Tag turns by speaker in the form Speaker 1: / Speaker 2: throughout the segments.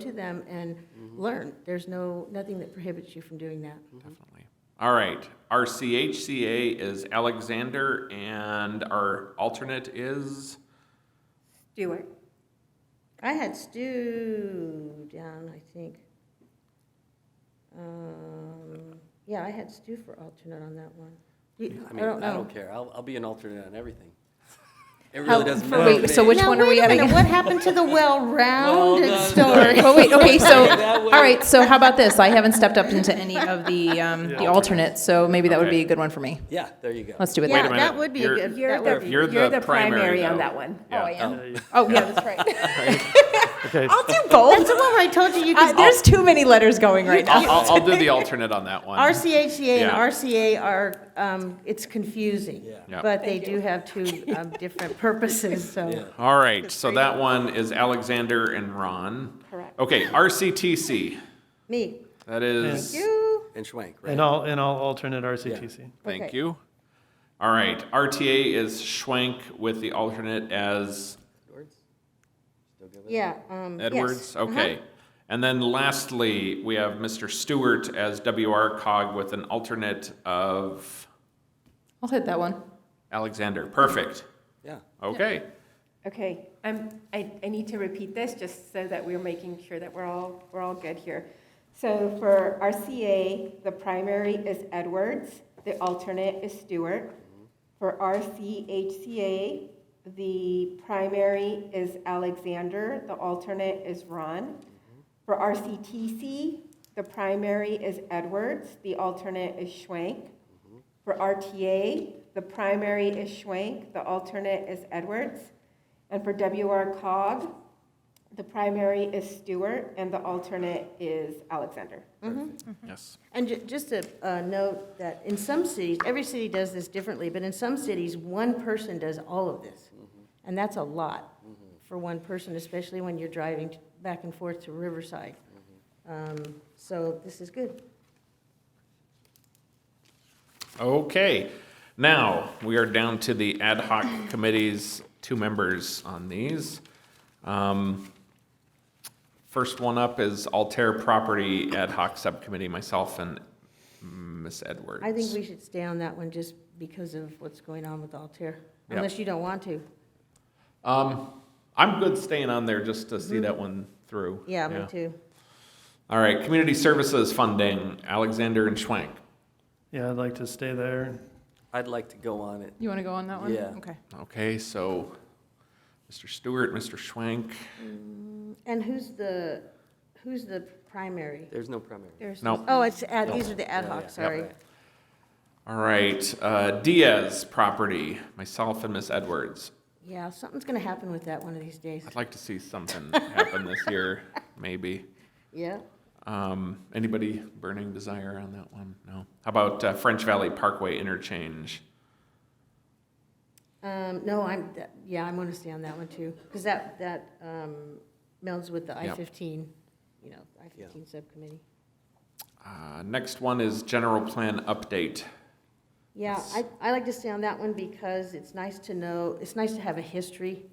Speaker 1: to them and
Speaker 2: Mm-hmm.
Speaker 1: learn. There's no, nothing that prohibits you from doing that.
Speaker 3: Definitely. All right, our CHCA is Alexander, and our alternate is,
Speaker 4: Stewart.
Speaker 1: I had Stu down, I think. Um, Yeah, I had Stu for alternate on that one. You-
Speaker 2: I
Speaker 1: I
Speaker 2: mean,
Speaker 1: don't
Speaker 2: I
Speaker 1: know.
Speaker 2: don't care. I'll, I'll be an alternate on everything. It
Speaker 1: How-
Speaker 2: really doesn't
Speaker 1: for
Speaker 2: matter. to
Speaker 1: wait,
Speaker 2: me.
Speaker 4: so which
Speaker 1: Now,
Speaker 4: one are
Speaker 1: wait
Speaker 4: we
Speaker 1: a minute,
Speaker 4: having?
Speaker 1: What happened to the well-rounded
Speaker 2: Well done.
Speaker 1: story?
Speaker 4: But wait, okay, so,
Speaker 2: That way-
Speaker 4: all right, so how about this? I haven't stepped up into any of the, um, the alternates, so maybe that would be
Speaker 3: Okay.
Speaker 4: a good one for me.
Speaker 2: Yeah, there you go.
Speaker 4: Let's do it
Speaker 1: Yeah,
Speaker 4: that
Speaker 3: a
Speaker 4: way.
Speaker 1: that
Speaker 3: minute,
Speaker 1: would be a
Speaker 3: you're-
Speaker 1: good,
Speaker 5: You're
Speaker 1: that would
Speaker 5: the-
Speaker 1: be.
Speaker 3: you're the primary,
Speaker 5: on
Speaker 3: though.
Speaker 5: that one.
Speaker 4: Oh,
Speaker 3: Yeah.
Speaker 4: I am?
Speaker 2: Oh.
Speaker 4: Oh, yeah, that's right.
Speaker 6: Okay,
Speaker 4: I'll do both.
Speaker 1: That's the one where I told you you
Speaker 4: Uh,
Speaker 1: could.
Speaker 4: There's too many letters going right now.
Speaker 3: I'll, I'll, I'll do the alternate on that one.
Speaker 1: RCHCA E and
Speaker 3: Yeah.
Speaker 1: RCA are, um, it's confusing.
Speaker 3: Yeah.
Speaker 1: But they do have two um, different purposes,
Speaker 2: Yeah.
Speaker 1: so.
Speaker 3: All right, so that one is Alexander and Ron.
Speaker 1: Correct.
Speaker 3: Okay, RCTC,
Speaker 1: Me,
Speaker 3: that is,
Speaker 1: you,
Speaker 2: And Schwank,
Speaker 6: and
Speaker 3: uh,
Speaker 2: right?
Speaker 6: I'll, and I'll alternate RCTC.
Speaker 3: thank
Speaker 1: Okay.
Speaker 3: you. All right, RTA is Schwank with the alternate as
Speaker 2: Edwards? Still good with it?
Speaker 1: yeah, um, yes.
Speaker 3: Edwards,
Speaker 1: Uh-huh.
Speaker 3: okay. And then lastly, we have Mr. Stewart as WR cog with an alternate of
Speaker 4: I'll hit that one.
Speaker 3: Alexander, perfect,
Speaker 2: Yeah.
Speaker 3: okay.
Speaker 5: Okay, um, I, I need to repeat this just so that we're making sure that we're all, we're all good here. So for RCA, the primary is Edwards, the alternate is Stewart. For RCHCA, the primary is Alexander, the alternate is Ron. For RCTC, the primary is Edwards, the alternate is Schwank. For RTA, the primary is Schwank, the alternate is Edwards. And for WR cog, the primary is Stewart and the alternate is Alexander.
Speaker 3: Yes.
Speaker 1: And ju- just a, a note that in some cities, every city does this differently, but in some cities, one person does all of this. And that's a lot for one person, especially when you're driving t- back and forth to Riverside. Um, So this is good.
Speaker 3: Okay, now we are down to the ad hoc committees, two members on these. Um, First one up is Altair Property Ad Hoc Subcommittee, myself and Miss Edwards.
Speaker 1: I think we should stay on that one just because of what's going on with Altair,
Speaker 3: Yeah.
Speaker 1: unless you don't want to.
Speaker 3: Um, I'm good staying on there just to see that one through.
Speaker 1: Mm-hmm. Yeah, me too.
Speaker 3: All right, Community Services Funding, Alexander and Schwank.
Speaker 6: Yeah, I'd like to stay there.
Speaker 2: I'd like to go on it.
Speaker 4: You want to go on that one?
Speaker 2: Yeah.
Speaker 4: Okay.
Speaker 3: Okay, so Mr. Stewart, Mr. Schwank.
Speaker 1: And who's the, who's the primary?
Speaker 2: There's no primary.
Speaker 3: No.
Speaker 1: Oh, it's, ad- these are the ad
Speaker 2: Yeah, yeah,
Speaker 1: hoc,
Speaker 2: yeah.
Speaker 1: sorry.
Speaker 2: Right.
Speaker 3: All right, uh, Diaz property, myself and Miss Edwards.
Speaker 1: Yeah, something's going to happen with that one of these days.
Speaker 3: I'd like to see something happen this year, maybe.
Speaker 1: Yeah.
Speaker 3: Um, anybody burning desire on that one? No. How about uh, French Valley Parkway interchange?
Speaker 1: Um, no, I'm, that- yeah, I'm gonna stay on that one too, because that, that, um, melds with the I
Speaker 3: Yep.
Speaker 1: fifteen, you know, I
Speaker 2: Yeah.
Speaker 1: fifteen subcommittee.
Speaker 3: Uh, next one is general plan update.
Speaker 1: Yeah, I, I like to stay on that one because it's nice to know, it's nice to have a history,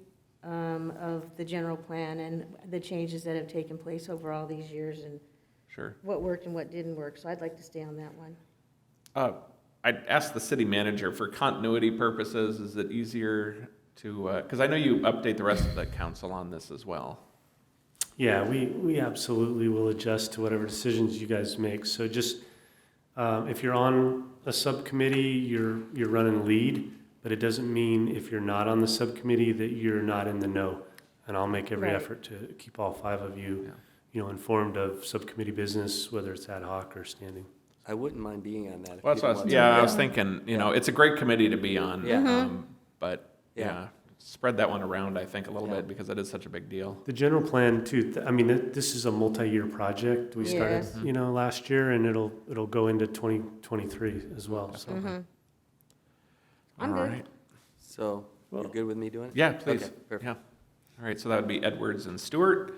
Speaker 1: um, of the general plan and the changes that have taken place over all these years and
Speaker 3: Sure.
Speaker 1: what worked and what didn't work, so I'd like to stay on that one.
Speaker 3: Uh, I'd ask the city manager for continuity purposes. Is it easier to? Because I know you update the rest of the council on this as well.
Speaker 7: Yeah, we, we absolutely will adjust to whatever decisions you guys make. So just, um, if you're on a subcommittee, you're, you're running lead, but it doesn't mean if you're not on the subcommittee that you're not in the know. And I'll make every
Speaker 1: Right.
Speaker 7: effort to keep all five of
Speaker 3: Yeah.
Speaker 7: you, you know, informed of subcommittee business, whether it's ad hoc or standing.
Speaker 2: I wouldn't mind being on that. if
Speaker 3: Well, that's what I
Speaker 2: people
Speaker 3: was,
Speaker 2: want to.
Speaker 3: yeah, I was thinking, you know, it's a great committee to be on.
Speaker 2: Yeah. Mm-hmm.
Speaker 3: um, But,
Speaker 2: Yeah.
Speaker 3: yeah, spread that one around, I think, a little
Speaker 2: Yeah.
Speaker 3: bit, because that is such a big deal.
Speaker 7: The general plan too, th- I mean, th- this is a multi-year project. We started,
Speaker 1: Yes.
Speaker 7: you know, last year and it'll, it'll go into 2023 as well, so.
Speaker 1: I'm
Speaker 3: All
Speaker 1: good.
Speaker 3: right.
Speaker 2: So, you're good with me doing it?
Speaker 3: Yeah, please.
Speaker 2: Okay, perfect.
Speaker 3: Yeah. All right, so that would be Edwards and Stewart.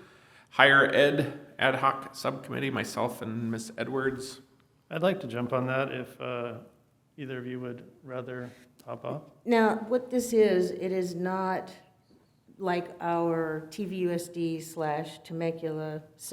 Speaker 3: Higher Ed Ad Hoc Subcommittee, myself and Miss Edwards.
Speaker 6: I'd like to jump on that if uh, either of you would rather hop off.
Speaker 1: Now, what this is, it is not like our TVUSD slash Temecula